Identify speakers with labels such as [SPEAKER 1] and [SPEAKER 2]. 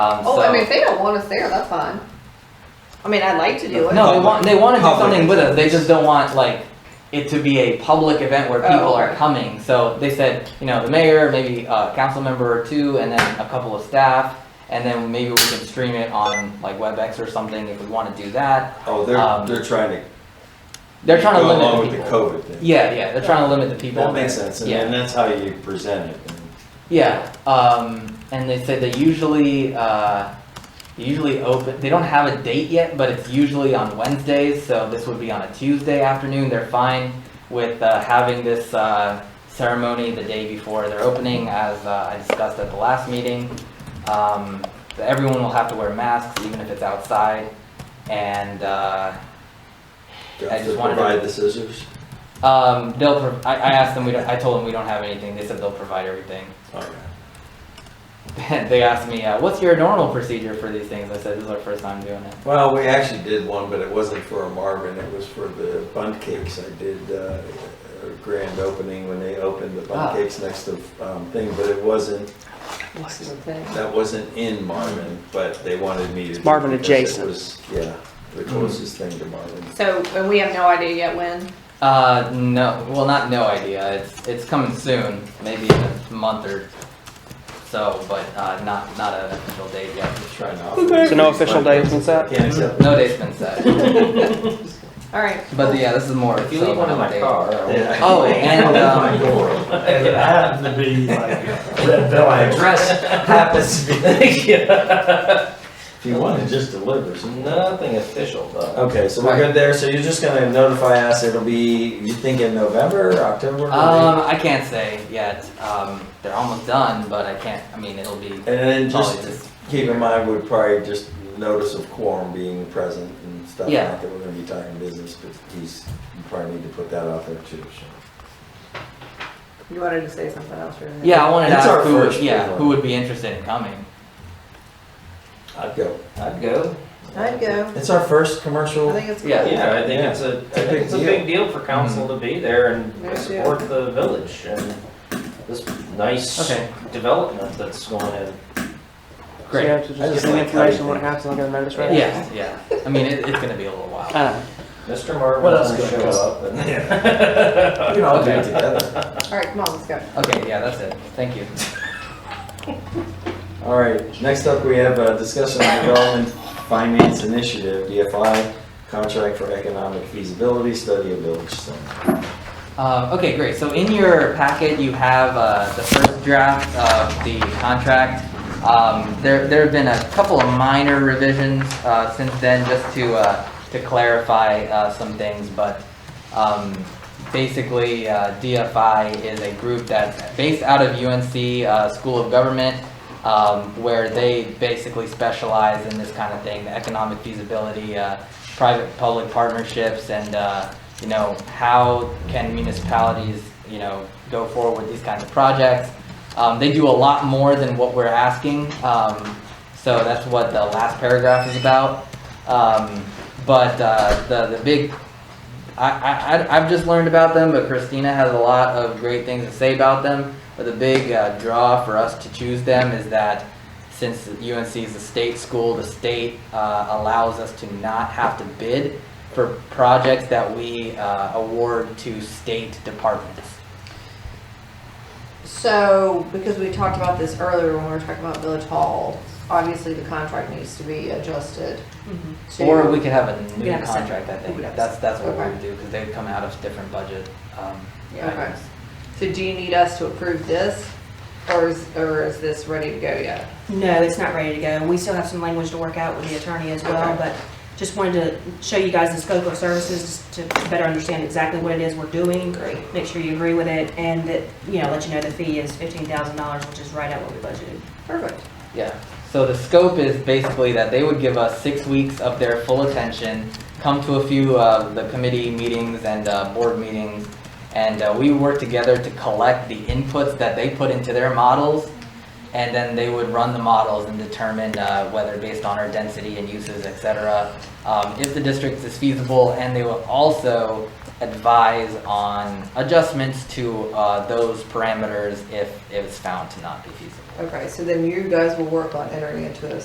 [SPEAKER 1] Um,
[SPEAKER 2] Oh,
[SPEAKER 1] so,
[SPEAKER 2] I mean, if they don't want us there, that's fine. I mean, I'd like to do it.
[SPEAKER 1] no, they want they want to do
[SPEAKER 3] Public
[SPEAKER 1] something with it. They just
[SPEAKER 3] events.
[SPEAKER 1] don't want like it to be a public event where
[SPEAKER 2] Oh,
[SPEAKER 1] people are
[SPEAKER 2] okay.
[SPEAKER 1] coming. So they said, you know, the mayor, maybe a council member or two, and then a couple of staff, and then maybe we can stream it on like WebEx or something if we want to do that.
[SPEAKER 3] Oh,
[SPEAKER 1] Um,
[SPEAKER 3] they're, they're trying to.
[SPEAKER 1] They're trying to
[SPEAKER 3] go
[SPEAKER 1] limit
[SPEAKER 3] along
[SPEAKER 1] the
[SPEAKER 3] with
[SPEAKER 1] people.
[SPEAKER 3] the COVID thing.
[SPEAKER 1] Yeah, yeah, they're trying to limit the people.
[SPEAKER 3] That makes sense, and
[SPEAKER 1] Yeah.
[SPEAKER 3] and that's how you present it.
[SPEAKER 1] Yeah, um, and they said they usually uh, usually open. They don't have a date yet, but it's usually on Wednesdays. So this would be on a Tuesday afternoon. They're fine with uh, having this uh, ceremony the day before their opening, as uh, I discussed at the last meeting. Um, so everyone will have to wear masks, even if it's outside. And uh,
[SPEAKER 3] Do
[SPEAKER 1] I
[SPEAKER 3] I have
[SPEAKER 1] just
[SPEAKER 3] to
[SPEAKER 1] wanted to-
[SPEAKER 3] provide the scissors?
[SPEAKER 1] um, they'll. Pro- I, I asked them. We don't, I told them we don't have anything. They said they'll provide everything.
[SPEAKER 3] Okay.
[SPEAKER 1] they asked me, uh, "What's your normal procedure for these things?" I said, "This is our first time doing it."
[SPEAKER 3] Well, we actually did one, but it wasn't for a Marvin, it was for the bun cakes. I did uh, a grand opening when they opened the
[SPEAKER 1] Ah.
[SPEAKER 3] bun cakes next to um, thing, but it wasn't,
[SPEAKER 2] This is the thing.
[SPEAKER 3] that wasn't in Marvin, but they wanted me to. do
[SPEAKER 4] Marvin
[SPEAKER 3] it because
[SPEAKER 4] adjacent.
[SPEAKER 3] It was, yeah, the closest thing to Marvin.
[SPEAKER 2] So, and we have no idea yet when.
[SPEAKER 1] Uh, no, well, not no idea. It's it's coming soon, maybe in a month or so, but uh, not not an official date yet.
[SPEAKER 3] Try not.
[SPEAKER 4] So no official date, what's that?
[SPEAKER 3] Can't accept.
[SPEAKER 1] No date's been set,
[SPEAKER 2] All right.
[SPEAKER 1] but yeah, this is more.
[SPEAKER 5] If you leave one in my car, I will-
[SPEAKER 1] Oh, and um,
[SPEAKER 3] um.
[SPEAKER 5] and it happens to be like red
[SPEAKER 3] My
[SPEAKER 5] velvet.
[SPEAKER 3] address happens to be, if you want to just deliver some.
[SPEAKER 5] Nothing official though.
[SPEAKER 3] Okay, so we're good there, so you're just gonna notify us, it'll be, you think in November, October? maybe?
[SPEAKER 1] um, I can't say yet. Um, they're almost done, but I can't. I mean, it'll be
[SPEAKER 3] And then
[SPEAKER 1] probably
[SPEAKER 3] just
[SPEAKER 1] just
[SPEAKER 3] keep in mind, we probably just notice of quorum being present and stuff,
[SPEAKER 1] Yeah.
[SPEAKER 3] not that we're gonna be talking business, but he's, you probably need to put that out there too, so.
[SPEAKER 2] You wanted to say something else, right?
[SPEAKER 1] yeah. I wanted to
[SPEAKER 3] It's our
[SPEAKER 1] ask who would,
[SPEAKER 3] first
[SPEAKER 1] yeah
[SPEAKER 3] one.
[SPEAKER 1] who would be interested in coming.
[SPEAKER 3] I'd go.
[SPEAKER 5] I'd go.
[SPEAKER 2] I'd go.
[SPEAKER 3] It's our first commercial.
[SPEAKER 2] I think it's cool.
[SPEAKER 1] Yeah.
[SPEAKER 5] Yeah, I think it's a, I think it's a big deal Hmm. for council to be there
[SPEAKER 2] Yeah.
[SPEAKER 5] and support the village and this nice
[SPEAKER 1] Okay.
[SPEAKER 5] development that's going in.
[SPEAKER 1] Great.
[SPEAKER 4] So you have to
[SPEAKER 3] I
[SPEAKER 4] just
[SPEAKER 3] just
[SPEAKER 4] give me
[SPEAKER 3] like
[SPEAKER 4] information when it
[SPEAKER 3] everything.
[SPEAKER 4] happens, I'll get a notice, right? Ah.
[SPEAKER 1] Yeah, yeah. I mean, it, it's gonna be a little
[SPEAKER 4] I
[SPEAKER 1] while.
[SPEAKER 4] don't know.
[SPEAKER 5] Mr. Marvin
[SPEAKER 3] What else
[SPEAKER 5] will
[SPEAKER 3] could I
[SPEAKER 5] show
[SPEAKER 3] do?
[SPEAKER 5] up and.
[SPEAKER 3] We can all do it together.
[SPEAKER 2] All right, come on, let's go.
[SPEAKER 1] Okay, yeah, that's it. Thank you.
[SPEAKER 3] All right, next up, we have a discussion on development finance initiative, DFI, contract for economic feasibility study of village center.
[SPEAKER 1] Um, okay, great. So in your packet, you have uh, the first draft of the contract. Um, there, there have been a couple of minor revisions uh, since then, just to uh, to clarify uh, some things. But um, basically, uh, DFI is a group that's based out of UNC uh, School of Government, um, where they basically specialize in this kind of thing, the economic feasibility, uh, private-public partnerships, and uh, you know, how can municipalities, you know, go forward with these kinds of projects? Um, they do a lot more than what we're asking, um, so that's what the last paragraph is about. Um, but uh, the the big, I, I I- I've just learned about them, but Christina has a lot of great things to say about them. But the big uh, draw for us to choose them is that since UNC is a state school, the state uh, allows us to not have to bid for projects that we uh, award to state departments.
[SPEAKER 2] So, because we talked about this earlier when we were talking about Village Hall, obviously the contract needs to be adjusted to.
[SPEAKER 1] Mm-hmm. Or we could have a
[SPEAKER 2] We
[SPEAKER 1] new
[SPEAKER 2] could have a separate-
[SPEAKER 1] contract, I
[SPEAKER 2] we
[SPEAKER 1] think.
[SPEAKER 2] could have a
[SPEAKER 1] That's, that's what we
[SPEAKER 2] separate-
[SPEAKER 1] would do, because they'd come out of different budget um,
[SPEAKER 2] Yeah, okay.
[SPEAKER 1] items.
[SPEAKER 2] So do you need us to approve this? Or is, or is this ready to go yet?
[SPEAKER 6] No, it's not ready to go, and we still have some language to work out with the attorney as well,
[SPEAKER 2] Okay.
[SPEAKER 6] but just wanted to show you guys the scope of services to better understand exactly what it is we're doing.
[SPEAKER 2] Great.
[SPEAKER 6] Make sure you agree with it, and that, you know, let you know the fee is fifteen thousand dollars, which is right at what we budgeted.
[SPEAKER 2] Perfect.
[SPEAKER 1] Yeah, so the scope is basically that they would give us six weeks of their full attention, come to a few of the committee meetings and uh, board meetings, and uh, we work together to collect the inputs that they put into their models, and then they would run the models and determine uh, whether based on our density and uses, et cetera, um, if the district is feasible, and they will also advise on adjustments to uh, those parameters if it's found to not be feasible.
[SPEAKER 2] Okay, so then you guys will work on entering into a